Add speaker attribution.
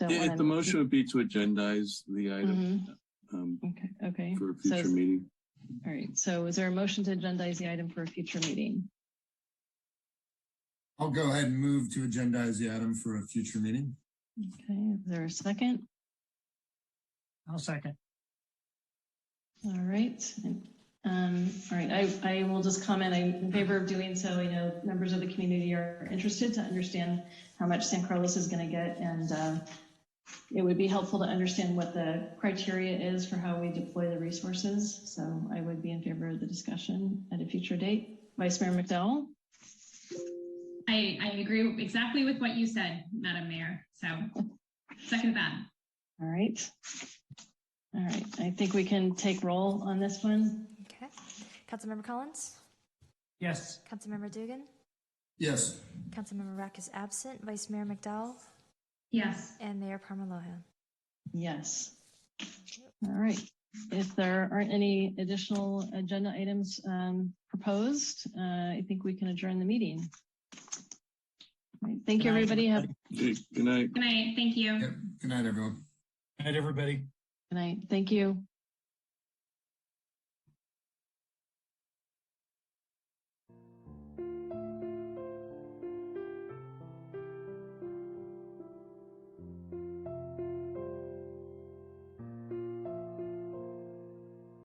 Speaker 1: don't
Speaker 2: Yeah,
Speaker 1: want
Speaker 2: the
Speaker 1: to.
Speaker 2: motion would be to agendize the item
Speaker 1: Mhm.
Speaker 2: um,
Speaker 1: Okay, okay.
Speaker 2: for a
Speaker 1: So,
Speaker 2: future meeting.
Speaker 1: all right. So is there a motion to agendize the item for a future meeting?
Speaker 3: I'll go ahead and move to agendize the item for a future meeting.
Speaker 1: Okay, is there a second?
Speaker 4: I'll second.
Speaker 1: All right. Um, all right, I, I will just comment, I'm in favor of doing so. I know members of the community are interested to understand how much San Carlos is going to get. And uh, it would be helpful to understand what the criteria is for how we deploy the resources. So I would be in favor of the discussion at a future date. Vice Mayor McDowell?
Speaker 5: I, I agree exactly with what you said, Madam Mayor. So second that.
Speaker 1: All right. All right, I think we can take roll on this one.
Speaker 6: Okay. Councilmember Collins?
Speaker 4: Yes.
Speaker 6: Councilmember Dugan?
Speaker 3: Yes,
Speaker 6: Councilmember Rack is absent. Vice Mayor McDowell
Speaker 5: Yes.
Speaker 6: and Mayor Parma Lohan.
Speaker 1: Yes. All right. If there aren't any additional agenda items um, proposed, uh, I think we can adjourn the meeting. All right, Thank you,
Speaker 4: Good night,
Speaker 1: everybody. Have a good
Speaker 2: Okay, Good night.
Speaker 5: Good night. Thank you.
Speaker 3: Yep. good night, everyone.
Speaker 4: Good night, everybody.
Speaker 1: night. Thank you.